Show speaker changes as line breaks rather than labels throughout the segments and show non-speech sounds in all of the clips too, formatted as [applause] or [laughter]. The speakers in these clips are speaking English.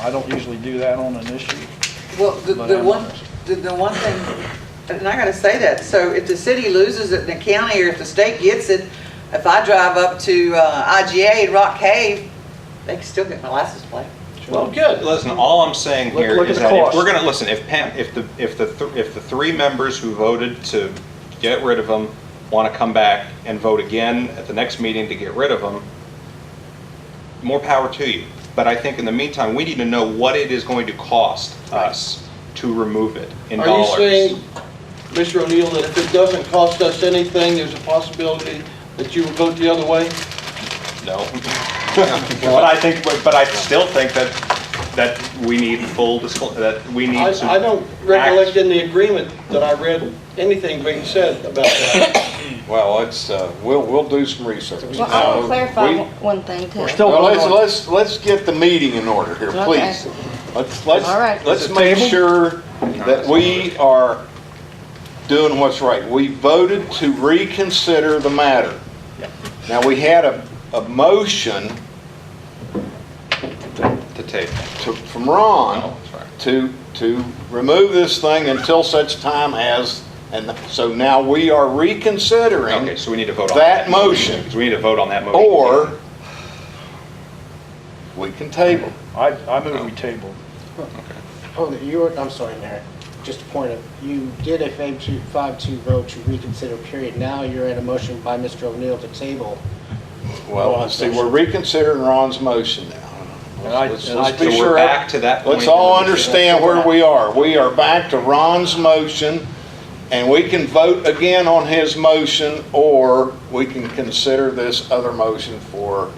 I don't usually do that on an issue.
Well, the,
But
the
I'm
one,
honest.
the, the one thing, and I gotta say that, so if the city loses it in the county, or if the state gets it, if I drive up to, uh, IGA in Rock Cave, they can still get my license plate.
Well, good. Listen, all I'm saying
Look-
here
look at
is
the
that if
cost.
we're gonna, listen, if Pam, if the, if the, th- if the three members who voted to get rid of them wanna come back and vote again at the next meeting to get rid of them, more power to you. But I think in the meantime, we need to know what it is going to cost us to remove it in
Are you
dollars.
saying, Mr. O'Neill, that if it doesn't cost us anything, there's a possibility that you would vote the other way? [laughs]
No. But I think, but but I still think that, that we need full, disclo- that we
I,
need to.
I don't recollect in the agreement that I read anything being said about that.
Well, it's, uh, we'll, we'll do some research.
Well, I want
Uh,
to clarify
we-
one- one thing too.
We're still-
Well, let's, let's, let's get the meeting in order here,
Okay.
please. Let's, let's,
All right.
let's
Is it
make
table?
sure that we are doing what's right. We voted to reconsider the matter. Now, we had a, a motion
To take.
to, from Ron.
Oh, sorry.
to, to remove this thing until such time as, and so now we are reconsidering
Okay, so we need to vote on
that
that.
motion,
Because we need to vote on that motion.
or we can table.
I, I move we table.
Oh, you were, I'm sorry, Mayor, just a point of, you did a five-two, five-two vote to reconsider period. Now you're at a motion by Mr. O'Neill to table.
Well, Oh, see, we're reconsidering Ron's motion now.
And I-
Let's-
and I-
Let's
So
be
we're
sure.
back to that point
Let's
that
all
we-
understand where we are. We are back to Ron's motion, and we can vote again on his motion, or we can consider this other motion for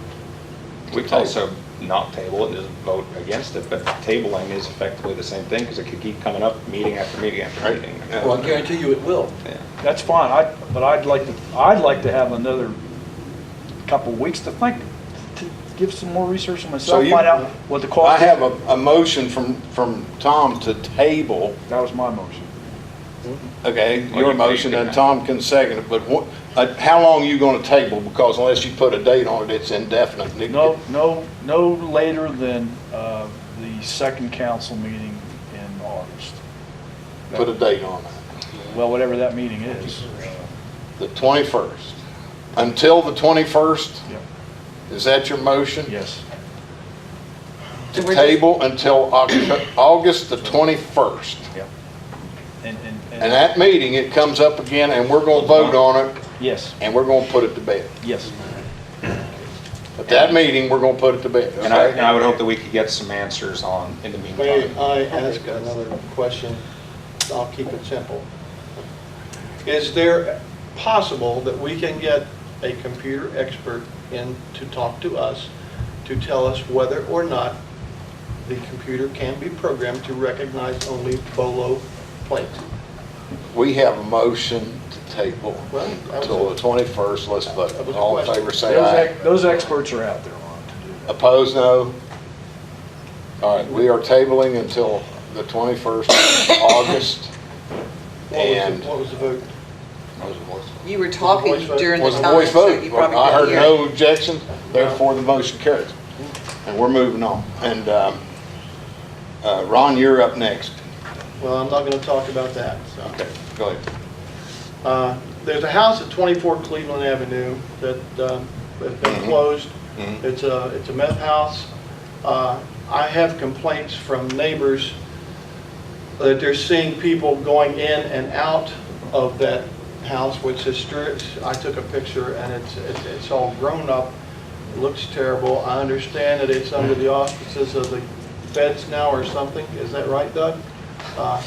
We could also not table it and just vote against it, but tabling is effectively the same thing because it could keep coming up meeting after meeting after
Right.
meeting.
Yeah.
Well, I guarantee you it will.
Yeah.
That's fine, I, but I'd like to, I'd like to have another couple weeks to think, to give some more research on myself,
you-
find out what the
I
cost
have
is.
a, a motion from, from Tom to table,
That was my motion.
okay,
Well,
your
you-
motion,
you-
and Tom can second it, but what, uh, how long you gonna table? Because unless you put a date on it, it's indefinite. and it-
No, no, no later than, uh, the second council meeting in August.
Put a date on it,
Well, whatever that meeting is. Uh,
the twenty-first. Until the twenty-first,
Yep.
is that your motion?
Yes,
To table until Octo- August the twenty-first.
and, and.
And that meeting, it comes up again, and we're gonna vote on it,
Yes,
and we're gonna put it to bed.
yes.
At that meeting, we're gonna put it to bed.
And I,
okay?
and I would hope that we could get some answers on, in the meantime.
May I ask another question? I'll keep it simple. Is there possible that we can get a computer expert in to talk to us to tell us whether or not the computer can be programmed to recognize only Bolo plates?
We have a motion to table
Well, that was
until
a-
the 21st, let's vote.
That was a
All in
question.
favor, say
Those,
aye.
ex- those experts are out there, Ron, to do that.
Opposed, no? All right, we are tabling until the 21st of August.
What was the-
And
What was the vote?
You were talking
voice vote?
during the
was a
time,
voice
so
vote.
you probably
I heard
couldn't hear.
no objection, therefore the motion carries. And we're moving on. And um, uh, Ron, you're up next.
Well, I'm not going to talk about that, so.
Okay, go ahead.
Uh, There's a house at 24 Cleveland Avenue that um, has been
Mhm.
closed.
Mhm.
It's a, it's a meth house. Uh, I have complaints from neighbors that they're seeing people going in and out of that house, which is, str- I took a picture and it's, it's- it's all grown up, looks terrible. I understand that it's under the auspices of the feds now or something, is that right, Doug? Uh,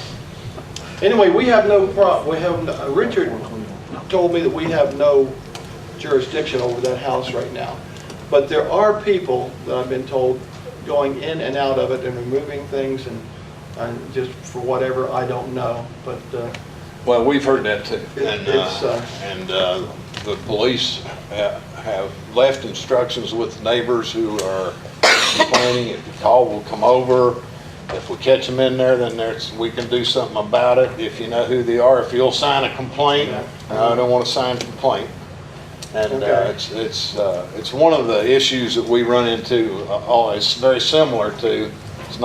Anyway, we have no prob, we have, no- Richard told me that we have no jurisdiction over that house right now. But there are people that I've been told going in and out of it and removing things and, and just for whatever, I don't know. But, uh,
Well, we've heard that too.
It-
And,
it's,
uh,
uh,
and uh, the police ha- have left instructions with neighbors who are complaining, if you call, we'll come over. If we catch them in there, then there's, we can do something about it, if you know who they are, if you'll sign a complaint. No, I don't want to sign a complaint. And uh,
Okay.
it's, it's, uh, it's one of the issues that we run into, uh, always very similar to